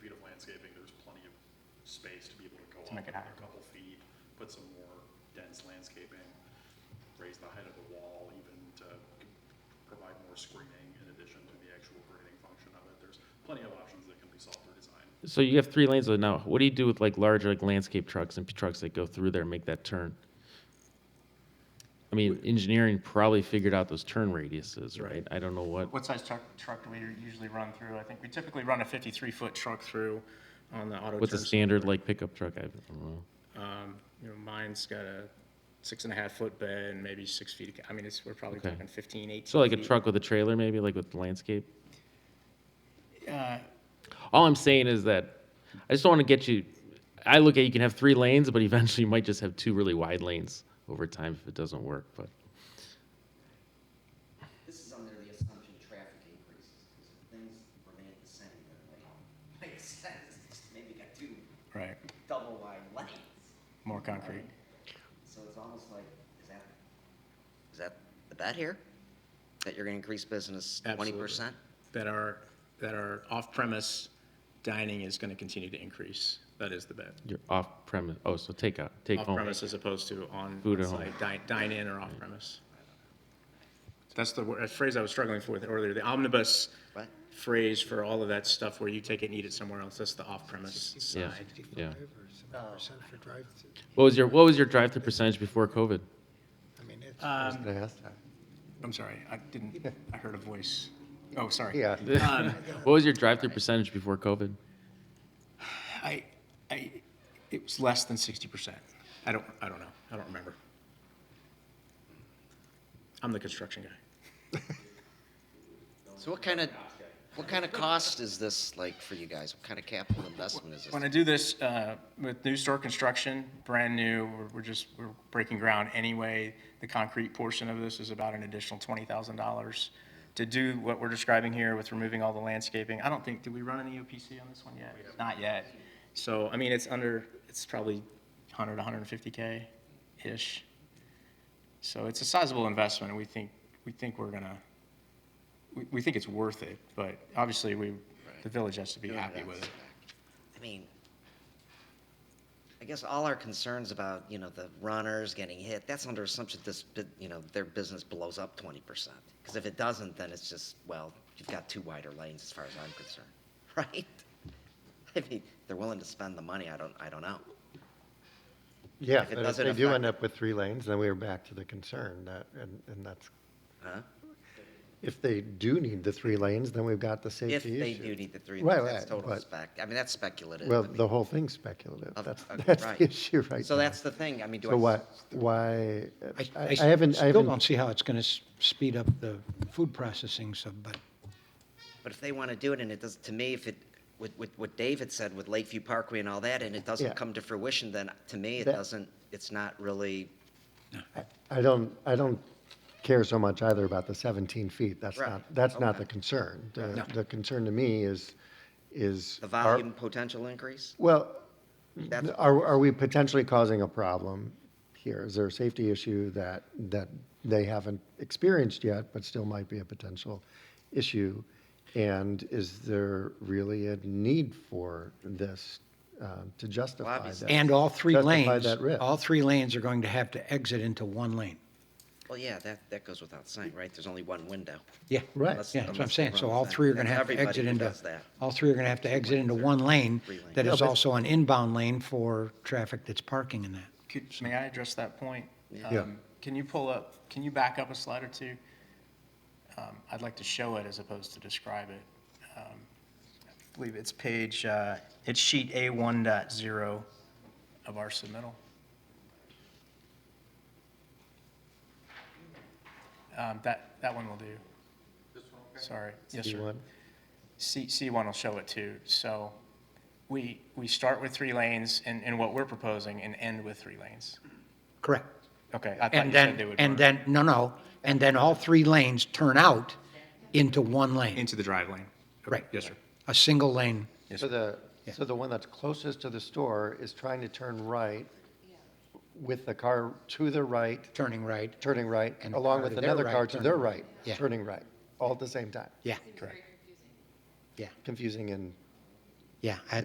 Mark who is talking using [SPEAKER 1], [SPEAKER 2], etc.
[SPEAKER 1] space to be able to go
[SPEAKER 2] To
[SPEAKER 1] up
[SPEAKER 2] make it
[SPEAKER 1] another
[SPEAKER 2] higher.
[SPEAKER 1] couple feet, put some more dense landscaping, raise the height of the wall even to provide more screening in addition to the actual grading function of it. There's plenty of options that can be solved through design.
[SPEAKER 3] So you have three lanes though now. What do you do with like large like landscape trucks and trucks that go through there and make that turn? I mean, engineering probably figured out those turn radiuses, right? I don't know what.
[SPEAKER 2] What size truck, truck do we usually run through? I think we typically run a 53-foot truck through on the auto.
[SPEAKER 3] What's a
[SPEAKER 2] turn.
[SPEAKER 3] standard like pickup truck? I don't know.
[SPEAKER 2] Um, You know, mine's got a six and a half foot bed and maybe six feet, of ca- I mean, it's, we're probably
[SPEAKER 3] Okay.
[SPEAKER 2] talking 15, 18
[SPEAKER 3] So like a
[SPEAKER 2] feet.
[SPEAKER 3] truck with a trailer, maybe like with landscape.
[SPEAKER 2] Uh,
[SPEAKER 3] All I'm saying is that I just don't want to get you. I look at you can have three lanes, but eventually you might just have two really wide lanes over time if it doesn't work. But
[SPEAKER 4] This is under the assumption traffic increases, because if things remain the same, then it might make sense. Maybe you got two
[SPEAKER 2] Right,
[SPEAKER 4] double wide lanes,
[SPEAKER 2] more concrete.
[SPEAKER 4] so it's almost like, is that, is that the bet here? That you're gonna increase business twenty percent?
[SPEAKER 2] That our, that our off-premise dining is going to continue to increase. That is the bet.
[SPEAKER 3] you're off premise. Oh, so take out, take home.
[SPEAKER 2] Off-premise as opposed to on,
[SPEAKER 3] Food at
[SPEAKER 2] site, dine, dine in or off-premise. That's the word- a phrase I was struggling for earlier, the omnibus
[SPEAKER 4] What?
[SPEAKER 2] phrase for all of that stuff where you take it and eat it somewhere else. That's the off-premise
[SPEAKER 3] Yeah,
[SPEAKER 2] side.
[SPEAKER 3] yeah.
[SPEAKER 5] Over seven
[SPEAKER 4] Oh.
[SPEAKER 5] percent for drive-through.
[SPEAKER 3] What was your what was your drive through percentage before COVID?
[SPEAKER 5] I mean, it's.
[SPEAKER 4] Uh,
[SPEAKER 2] Um, I'm sorry, I didn't, I heard a voice. Oh, sorry. Yeah.
[SPEAKER 3] What was your drive through percentage before COVID?
[SPEAKER 2] I, I, it was less than sixty percent. I don't, I don't know. I don't remember. I'm the construction guy.
[SPEAKER 4] So what kind of, what kind of cost is this like for you guys? What kind of capital investment is
[SPEAKER 2] When I
[SPEAKER 4] this?
[SPEAKER 2] do this, uh, with new store construction, brand new, we're, we're just, we're breaking ground anyway. The concrete portion of this is about an additional twenty thousand dollars. To do what we're describing here with removing all the landscaping, I don't think, did we run an EOPC on this one yet? Not yet. So, I mean, it's under, it's probably hundred, hundred and fifty K-ish. So it's a sizable investment, and we think, we think we're gonna, we, we think it's worth it, but obviously, we, the village has to be happy with it.
[SPEAKER 4] I mean, I guess all our concerns about, you know, the runners getting hit, that's under assumption this, bu- you know, their business blows up twenty percent. Because if it doesn't, then it's just, well, you've got two wider lanes as far as I'm concerned, right? I mean, they're willing to spend the money, I don't, I don't know.
[SPEAKER 6] Yeah,
[SPEAKER 4] If it
[SPEAKER 6] and if
[SPEAKER 4] doesn't
[SPEAKER 6] they do
[SPEAKER 4] affect-
[SPEAKER 6] end up with three lanes, then we're back to the concern that, and, and that's,
[SPEAKER 4] huh?
[SPEAKER 6] if they do need the three lanes, then we've got the
[SPEAKER 4] If
[SPEAKER 6] safety
[SPEAKER 4] they do
[SPEAKER 6] issue.
[SPEAKER 4] need the three,
[SPEAKER 6] Right,
[SPEAKER 4] lanes, that's
[SPEAKER 6] right,
[SPEAKER 4] total
[SPEAKER 6] but-
[SPEAKER 4] spec, I mean, that's speculative.
[SPEAKER 6] Well,
[SPEAKER 4] I mean,
[SPEAKER 6] the whole thing's speculative.
[SPEAKER 4] of-
[SPEAKER 6] That's,
[SPEAKER 4] okay,
[SPEAKER 6] that's
[SPEAKER 4] right.
[SPEAKER 6] the issue right now.
[SPEAKER 4] So that's the thing, I mean, do I?
[SPEAKER 6] So why, why, I
[SPEAKER 7] I-
[SPEAKER 6] I haven't, I
[SPEAKER 7] Still don't
[SPEAKER 6] haven't,
[SPEAKER 7] see how it's going to speed up the food processing, so, but
[SPEAKER 4] But if they want to do it and it does, to me, if it, with, with what David said with Lakeview Parkway and all that, and it
[SPEAKER 6] Yeah.
[SPEAKER 4] doesn't come to fruition, then to me, it
[SPEAKER 6] That-
[SPEAKER 4] doesn't, it's not really,
[SPEAKER 6] I don't, I don't care so much either about the 17 feet. That's
[SPEAKER 4] Right,
[SPEAKER 6] not, that's not
[SPEAKER 4] okay.
[SPEAKER 6] the concern. The, the concern to me is, is.
[SPEAKER 4] the
[SPEAKER 6] are-
[SPEAKER 4] volume potential increase?
[SPEAKER 6] Well,
[SPEAKER 4] That's-
[SPEAKER 6] are, are we potentially causing a problem here? Is there a safety issue that, that they haven't experienced yet, but still might be a potential issue? And is there really a need for this um, to justify
[SPEAKER 4] obviously.
[SPEAKER 6] that?
[SPEAKER 7] and all three
[SPEAKER 6] Justify
[SPEAKER 7] lanes,
[SPEAKER 6] that risk.
[SPEAKER 7] all three lanes are going to have to exit into one lane.
[SPEAKER 4] Well, yeah, that, that goes without saying, right? There's only one window.
[SPEAKER 7] Yeah,
[SPEAKER 6] Right.
[SPEAKER 4] Unless-
[SPEAKER 7] yeah, that's what I'm
[SPEAKER 4] unless
[SPEAKER 7] saying.
[SPEAKER 4] they
[SPEAKER 7] So
[SPEAKER 4] run
[SPEAKER 7] all
[SPEAKER 4] that.
[SPEAKER 7] three are going to
[SPEAKER 4] That's
[SPEAKER 7] have to
[SPEAKER 4] everybody
[SPEAKER 7] exit
[SPEAKER 4] who
[SPEAKER 7] into,
[SPEAKER 4] does that.
[SPEAKER 7] all three are going to have to exit into one lane
[SPEAKER 4] Three lanes.
[SPEAKER 7] that
[SPEAKER 6] Yeah,
[SPEAKER 7] is
[SPEAKER 6] but-
[SPEAKER 7] also an inbound lane for traffic that's parking in that.
[SPEAKER 2] Could, may I address that point?
[SPEAKER 6] Yeah.
[SPEAKER 2] Um, Can you pull up, can you back up a slide or two? Um, I'd like to show it as opposed to describe it. Um, I believe it's page, uh, it's sheet A one dot zero of our submittal. Um, That, that one will do. Sorry, yes, sir.
[SPEAKER 6] C1?
[SPEAKER 2] C, C1 will show it too. So we, we start with three lanes and, and what we're proposing and end with three lanes.
[SPEAKER 7] Correct.
[SPEAKER 2] Okay, I thought
[SPEAKER 7] And
[SPEAKER 2] you said they
[SPEAKER 7] then,
[SPEAKER 2] would.
[SPEAKER 7] and then, no, no, and then all three lanes turn out into one lane,
[SPEAKER 2] Into the drive lane.
[SPEAKER 7] Right.
[SPEAKER 2] Yes, sir.
[SPEAKER 7] a single lane.
[SPEAKER 6] So the, so the one that's closest to the store is trying to turn right with the car to the right,
[SPEAKER 7] turning right.
[SPEAKER 6] turning right,
[SPEAKER 7] And the
[SPEAKER 6] along
[SPEAKER 7] car
[SPEAKER 6] with
[SPEAKER 7] to their
[SPEAKER 6] another
[SPEAKER 7] right,
[SPEAKER 6] car to
[SPEAKER 7] turning
[SPEAKER 6] their
[SPEAKER 7] right.
[SPEAKER 6] right,
[SPEAKER 7] Yeah.
[SPEAKER 6] turning right, all at the same time.
[SPEAKER 7] Yeah,
[SPEAKER 6] Confusing and
[SPEAKER 7] yeah. I-